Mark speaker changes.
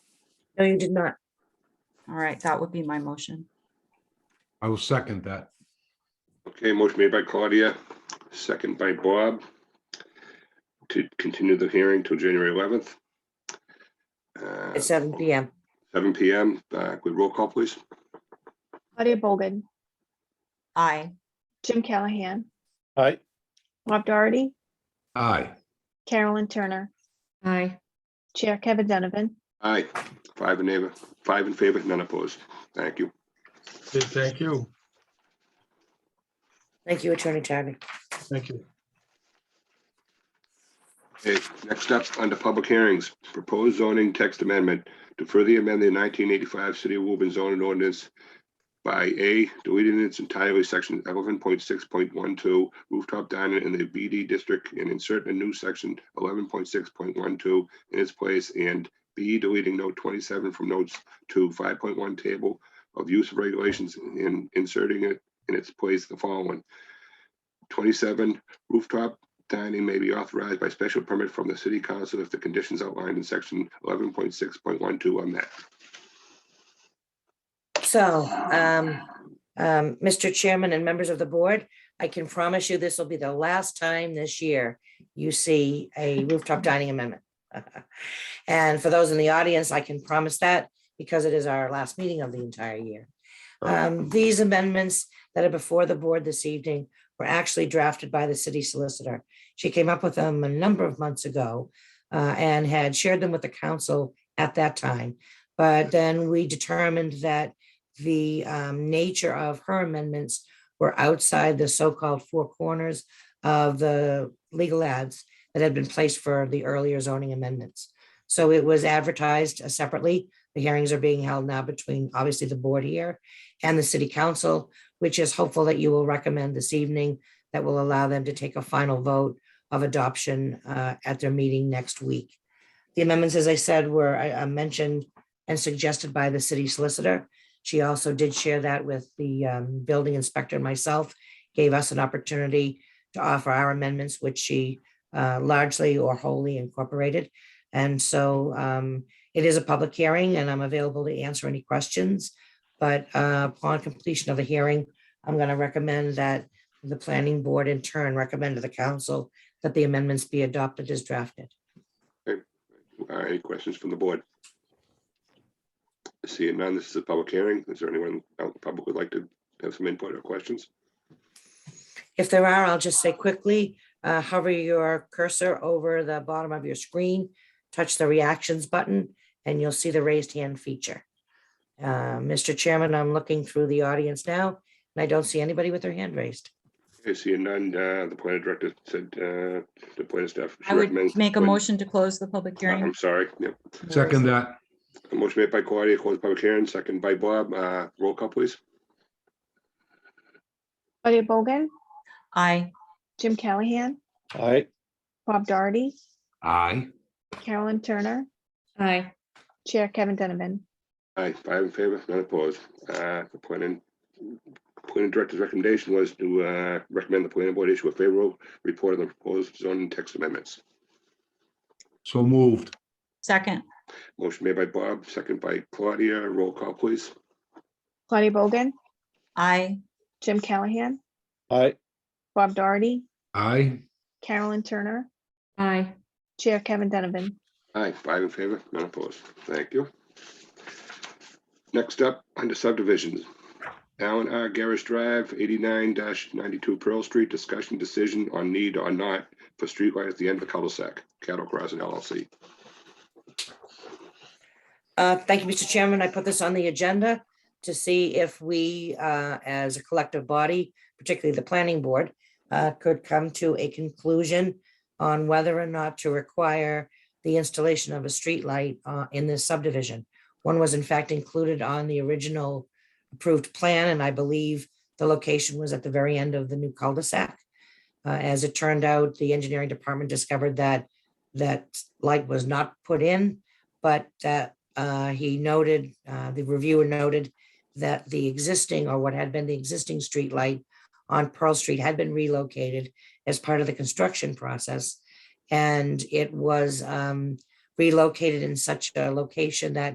Speaker 1: No, you did not.
Speaker 2: All right, that would be my motion.
Speaker 3: I will second that.
Speaker 4: Okay, motion made by Claudia, second by Bob. To continue the hearing till January eleventh.
Speaker 1: At seven PM.
Speaker 4: Seven PM, uh, with roll call, please.
Speaker 5: Claudia Bogan,
Speaker 2: Aye.
Speaker 5: Jim Callahan,
Speaker 6: aye,
Speaker 5: Bob Doherty,
Speaker 3: Aye.
Speaker 5: Carolyn Turner,
Speaker 7: aye,
Speaker 5: Chair Kevin Donovan,
Speaker 4: Aye, five in favor, five in favor, none opposed. Thank you.
Speaker 6: Good, thank you,
Speaker 1: Thank you, Attorney Chadwick.
Speaker 6: thank you.
Speaker 4: Okay, next up, under public hearings, proposed zoning text amendment to further amend the nineteen eighty-five City of Woburn zoning ordinance by A, deleting its entirely section eleven point six point one two rooftop dining in the BD district and insert a new section eleven point six point one two in its place, and B, deleting note twenty-seven from notes to five point one table of use of regulations and inserting it in its place the following. Twenty-seven rooftop dining may be authorized by special permit from the city council if the conditions outlined in section eleven point six point one two are met.
Speaker 1: So, um, um, Mr. Chairman and members of the board, I can promise you this will be the last time this year you see a rooftop dining amendment. And for those in the audience, I can promise that because it is our last meeting of the entire year. Um, these amendments that are before the board this evening were actually drafted by the city solicitor. She came up with them a number of months ago uh, and had shared them with the council at that time. But then we determined that the um, nature of her amendments were outside the so-called four corners of the legal ads that had been placed for the earlier zoning amendments. So it was advertised uh, separately. The hearings are being held now between, obviously, the board here and the city council, which is hopeful that you will recommend this evening that will allow them to take a final vote of adoption uh, at their meeting next week. The amendments, as I said, were uh, mentioned and suggested by the city solicitor. She also did share that with the um, building inspector and myself, gave us an opportunity to offer our amendments, which she uh, largely or wholly incorporated. And so um, it is a public hearing and I'm available to answer any questions. But uh, upon completion of the hearing, I'm going to recommend that the planning board in turn recommend to the council that the amendments be adopted as drafted.
Speaker 4: All right, Any questions from the board? Seeing none, this is a public hearing. Is there anyone out in the public would like to have some input or questions?
Speaker 1: If there are, I'll just say quickly, uh, hover your cursor over the bottom of your screen, touch the reactions button, and you'll see the raised hand feature. Uh, Mr. Chairman, I'm looking through the audience now, and I don't see anybody with their hand raised.
Speaker 4: Okay, Seeing none, uh, the planning director said, uh, the planning staff.
Speaker 2: I would
Speaker 4: recommends-
Speaker 2: make a motion to close the public
Speaker 4: Uh,
Speaker 2: hearing.
Speaker 4: I'm sorry. Yep.
Speaker 3: Second that.
Speaker 4: A Motion made by Claudia, close public hearing, second by Bob. Uh, Roll call, please.
Speaker 5: Claudia Bogan,
Speaker 2: Aye.
Speaker 5: Jim Callahan,
Speaker 6: aye,
Speaker 5: Bob Doherty,
Speaker 3: Aye.
Speaker 5: Carolyn Turner,
Speaker 7: aye,
Speaker 5: Chair Kevin Donovan,
Speaker 4: Aye, five in favor, none opposed. Uh, The planning, planning director's recommendation was to uh, recommend the planning board issue a favorable report on the proposed zoning text amendments.
Speaker 3: So moved.
Speaker 2: Second.
Speaker 4: Motion made by Bob, second by Claudia. Roll call, please.
Speaker 5: Claudia Bogan,
Speaker 2: Aye.
Speaker 5: Jim Callahan,
Speaker 6: aye,
Speaker 5: Bob Doherty,
Speaker 3: Aye.
Speaker 5: Carolyn Turner,
Speaker 7: aye.
Speaker 5: Chair Kevin Donovan,
Speaker 4: Aye, five in favor, none opposed. Thank you. Next up, under subdivisions. Alan R. Garrish Drive, eighty-nine ninety-two Pearl Street, discussion decision on need or not for streetlight at the end of the cul-de-sac, Cattle Crossing LLC.
Speaker 1: Uh, Thank you, Mr. Chairman. I put this on the agenda to see if we, uh, as a collective body, particularly the planning board, uh, could come to a conclusion on whether or not to require the installation of a streetlight uh, in this subdivision. One was in fact included on the original approved plan, and I believe the location was at the very end of the new cul-de-sac. Uh, As it turned out, the engineering department discovered that that light was not put in, but that uh, he noted, uh, the reviewer noted that the existing or what had been the existing streetlight on Pearl Street had been relocated as part of the construction process. And it was um, relocated in such a location that